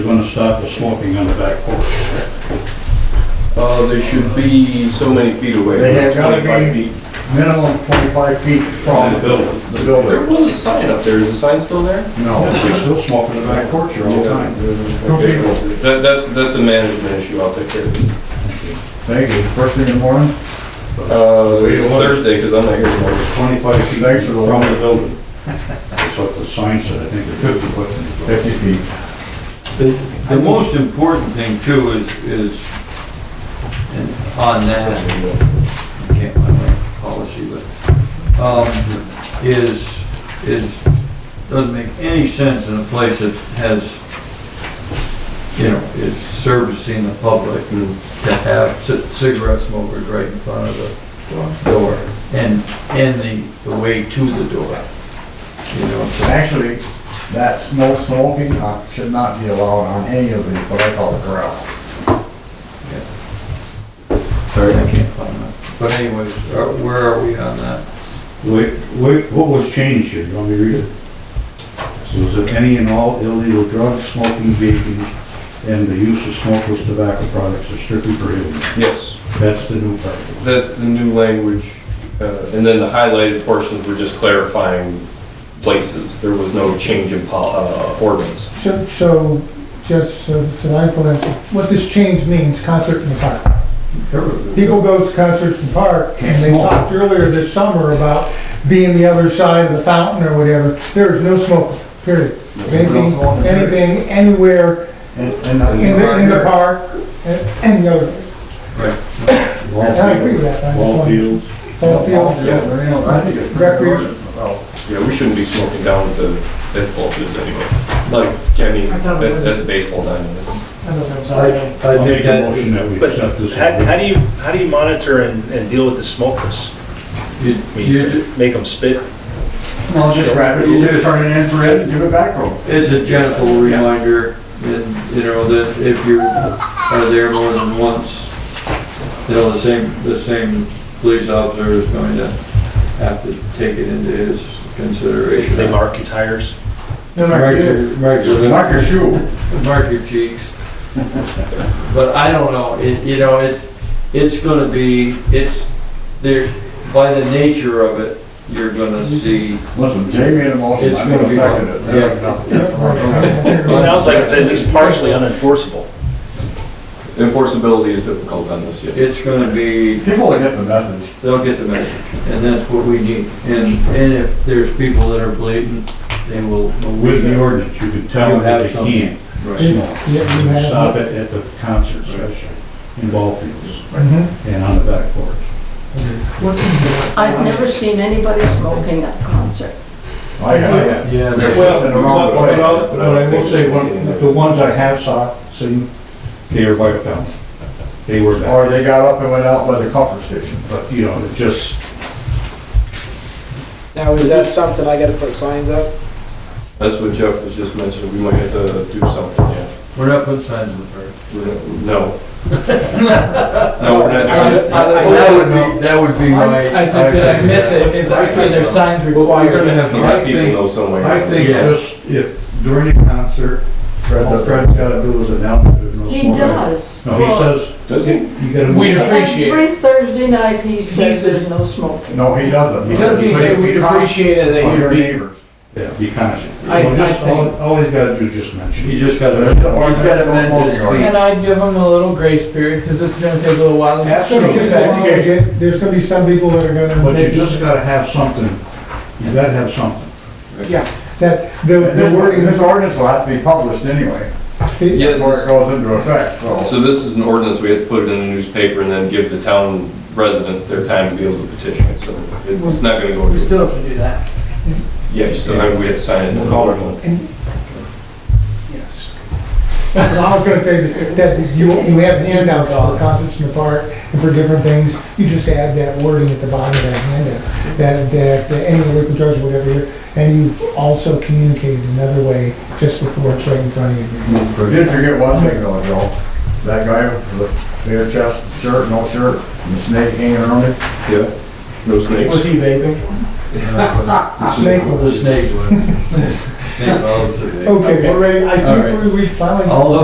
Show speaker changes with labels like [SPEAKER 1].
[SPEAKER 1] You're gonna stop the smoking on the back porch.
[SPEAKER 2] Uh, they should be so many feet away.
[SPEAKER 3] They have gotta
[SPEAKER 2] 25
[SPEAKER 3] be-
[SPEAKER 2] feet
[SPEAKER 3] minimum 25 feet
[SPEAKER 2] From
[SPEAKER 3] from
[SPEAKER 2] the building.
[SPEAKER 3] the
[SPEAKER 2] There
[SPEAKER 3] building.
[SPEAKER 2] was a sign up there, is the sign still there?
[SPEAKER 3] No.
[SPEAKER 1] You're still smoking in the back porch here all the time.
[SPEAKER 3] Two people.
[SPEAKER 2] That, that's, that's a management issue, I'll take care of it.
[SPEAKER 3] Thank you. First thing in the morning,
[SPEAKER 2] Uh, Thursday, because I'm not here tomorrow.
[SPEAKER 1] Twenty-five feet
[SPEAKER 3] Thanks for the
[SPEAKER 1] from the building. That's what the sign said, I think, the fifty foot. from the building.
[SPEAKER 3] 50 feet.
[SPEAKER 4] The the most important thing too is, is and on that, I can't find my policy, but, um, is, is, doesn't make any sense in a place that has, you know, is servicing the public to have ci- cigarette smokers right in front of the door and, and the, the way to the door. You know, so
[SPEAKER 3] Actually, that snow smoking uh, should not be allowed on any of the, what I call the corral.
[SPEAKER 4] Sorry, I can't find that. But anyways, uh, where are we on that?
[SPEAKER 1] Wait, wait, what was changed here? You want me to read it? Was it any and all illegal drugs, smoking, vaping, and the use of smokeless tobacco products are strictly prohibited?
[SPEAKER 2] Yes,
[SPEAKER 1] That's the new part.
[SPEAKER 2] that's the new language. Uh, and then the highlighted portions were just clarifying places. There was no change in pol, uh, ordinance.
[SPEAKER 5] So, so, just so so that I can answer, what this change means, concert in the park. People go to concerts in the park, and they
[SPEAKER 1] Can't smoke.
[SPEAKER 5] talked earlier this summer about being the other side of the fountain or whatever, there is no smoking, period. Anything,
[SPEAKER 3] smoking, period.
[SPEAKER 5] anything, anywhere,
[SPEAKER 3] And, and I-
[SPEAKER 5] in the, in the park, and- and the other, I agree with that, I just
[SPEAKER 1] Ball
[SPEAKER 5] wanted-
[SPEAKER 1] fields,
[SPEAKER 5] ball field.
[SPEAKER 3] Yeah, everything else, I think it's pretty good.
[SPEAKER 5] Recreation.
[SPEAKER 3] Well,
[SPEAKER 2] Yeah, we shouldn't be smoking down at the baseball fields anyway. Like, I mean,
[SPEAKER 5] I
[SPEAKER 2] at,
[SPEAKER 5] thought it was-
[SPEAKER 2] at the baseball diamond.
[SPEAKER 5] I don't know,
[SPEAKER 6] I
[SPEAKER 5] sorry.
[SPEAKER 1] I'll
[SPEAKER 6] I
[SPEAKER 1] make
[SPEAKER 6] think
[SPEAKER 1] a
[SPEAKER 6] that,
[SPEAKER 1] motion that we
[SPEAKER 7] But
[SPEAKER 1] accept this.
[SPEAKER 7] How, how do you, how do you monitor and, and deal with the smokeless?
[SPEAKER 4] You,
[SPEAKER 7] I
[SPEAKER 4] you,
[SPEAKER 7] mean,
[SPEAKER 4] ju-
[SPEAKER 7] make them spit?
[SPEAKER 3] No, just wrap it, you just turn it in for it, and give it back to 'em.
[SPEAKER 4] it's a gentle reminder, and, you know, that if you are there more than once, you know, the same, the same police officer is going to have to take it into his consideration.
[SPEAKER 7] They mark your tires?
[SPEAKER 5] No, no,
[SPEAKER 4] Mark
[SPEAKER 5] you-
[SPEAKER 4] your, mark your-
[SPEAKER 3] Mark your shoe.
[SPEAKER 4] mark your cheeks. But I don't know, it, you know, it's, it's gonna be, it's, there, by the nature of it, you're gonna see.
[SPEAKER 3] Listen, Jay made a motion,
[SPEAKER 4] It's
[SPEAKER 3] I'm gonna
[SPEAKER 4] gonna be
[SPEAKER 3] second
[SPEAKER 4] fun.
[SPEAKER 3] it. There we go. Yes,
[SPEAKER 7] It sounds like it's at least partially unenforceable.
[SPEAKER 2] Enforceability is difficult on this, yes.
[SPEAKER 4] It's gonna be,
[SPEAKER 3] People will get the message.
[SPEAKER 4] they'll get the message, and that's what we need. And, and if there's people that are blatant, they will.
[SPEAKER 1] With the ordinance, you can tell
[SPEAKER 4] You
[SPEAKER 1] them that
[SPEAKER 4] have
[SPEAKER 1] they
[SPEAKER 4] something.
[SPEAKER 1] can't
[SPEAKER 4] Right.
[SPEAKER 1] smoke.
[SPEAKER 5] you
[SPEAKER 1] You can
[SPEAKER 5] have-
[SPEAKER 1] Stop it at the concert special, in ball fields,
[SPEAKER 5] Mhm.
[SPEAKER 1] and on the back porch.
[SPEAKER 8] I've never seen anybody smoking at a concert.
[SPEAKER 3] I got it.
[SPEAKER 4] Yeah,
[SPEAKER 3] There's
[SPEAKER 1] Well,
[SPEAKER 3] something
[SPEAKER 1] but-
[SPEAKER 3] wrong with
[SPEAKER 1] but
[SPEAKER 3] it.
[SPEAKER 1] I- but I will say, one, the ones I have saw, seen, they are by the fountain. They were back,
[SPEAKER 3] Or they got up and went out by the comfort station.
[SPEAKER 1] but, you know, it just,
[SPEAKER 9] Now, is that something I gotta put signs up?
[SPEAKER 2] That's what Jeff was just mentioning, we might have to do something, yeah.
[SPEAKER 4] we're not putting signs in the park.
[SPEAKER 2] We're not- No. No, we're not doing this.
[SPEAKER 4] That would be, that would be my.
[SPEAKER 6] I said, did I miss it? Is, are there signs
[SPEAKER 2] We're gonna
[SPEAKER 6] required?
[SPEAKER 2] have to
[SPEAKER 1] I
[SPEAKER 2] have people
[SPEAKER 1] think-
[SPEAKER 2] know some way.
[SPEAKER 1] I think
[SPEAKER 4] Yeah.
[SPEAKER 1] just if during a concert,
[SPEAKER 3] Fred
[SPEAKER 1] all
[SPEAKER 3] does
[SPEAKER 1] Fred's gotta do is announce that there's no
[SPEAKER 8] He
[SPEAKER 1] smoking.
[SPEAKER 8] does.
[SPEAKER 1] No, he says,
[SPEAKER 2] Does he?
[SPEAKER 1] you gotta.
[SPEAKER 6] We
[SPEAKER 1] move-
[SPEAKER 6] appreciate it.
[SPEAKER 8] Every Thursday night, he says
[SPEAKER 6] says-
[SPEAKER 8] there's no smoking.
[SPEAKER 3] No, he doesn't.
[SPEAKER 6] He doesn't
[SPEAKER 3] says,
[SPEAKER 6] say
[SPEAKER 3] "Please
[SPEAKER 6] we'd
[SPEAKER 3] be kind
[SPEAKER 6] appreciate it that
[SPEAKER 3] Of
[SPEAKER 6] you'd
[SPEAKER 3] your
[SPEAKER 6] be.
[SPEAKER 3] neighbors.
[SPEAKER 1] Yeah, be conscious.
[SPEAKER 6] I-
[SPEAKER 1] Well, just
[SPEAKER 6] I think-
[SPEAKER 1] all- All he's gotta do is just mention.
[SPEAKER 4] You just gotta,
[SPEAKER 3] Or
[SPEAKER 4] you
[SPEAKER 3] it's
[SPEAKER 4] just gotta
[SPEAKER 3] no
[SPEAKER 4] amend this.
[SPEAKER 3] smoking
[SPEAKER 6] And I'd give them a little grace period, because this is gonna take a little while.
[SPEAKER 5] That's gonna
[SPEAKER 6] to
[SPEAKER 5] take a
[SPEAKER 6] affect.
[SPEAKER 5] while to get- There's gonna be some people that are gonna.
[SPEAKER 1] But you
[SPEAKER 5] make-
[SPEAKER 1] just gotta have something, you gotta have something.
[SPEAKER 5] That, the
[SPEAKER 3] This
[SPEAKER 5] the
[SPEAKER 3] wording,
[SPEAKER 5] wording,
[SPEAKER 3] this ordinance will have to be published anyway,
[SPEAKER 2] Yeah,
[SPEAKER 3] before it
[SPEAKER 2] this-
[SPEAKER 3] goes into effect, so.
[SPEAKER 2] so this is an ordinance, we had to put it in the newspaper and then give the town residents their time to be able to petition it, so it's not gonna go.
[SPEAKER 6] We still have to do that.
[SPEAKER 2] Yeah, you still have, we had to sign it.
[SPEAKER 5] I was gonna tell you, that you, you have handouts for concerts in the park and for different things, you just add that wording at the bottom of that handout, that, that any local judge would ever hear, and you also communicated another way just before it's right in front of you.
[SPEAKER 3] I did forget one thing though, Joe. That guy with the bare chest shirt, no shirt, and the snake hanging around it.
[SPEAKER 2] Yeah, no
[SPEAKER 6] Was
[SPEAKER 2] snakes.
[SPEAKER 6] he vaping?
[SPEAKER 4] The
[SPEAKER 5] Snake
[SPEAKER 4] The
[SPEAKER 5] was,
[SPEAKER 4] snake one. state laws today.
[SPEAKER 5] Okay, we're ready, I
[SPEAKER 4] All right.
[SPEAKER 5] think we- we finally.
[SPEAKER 4] All those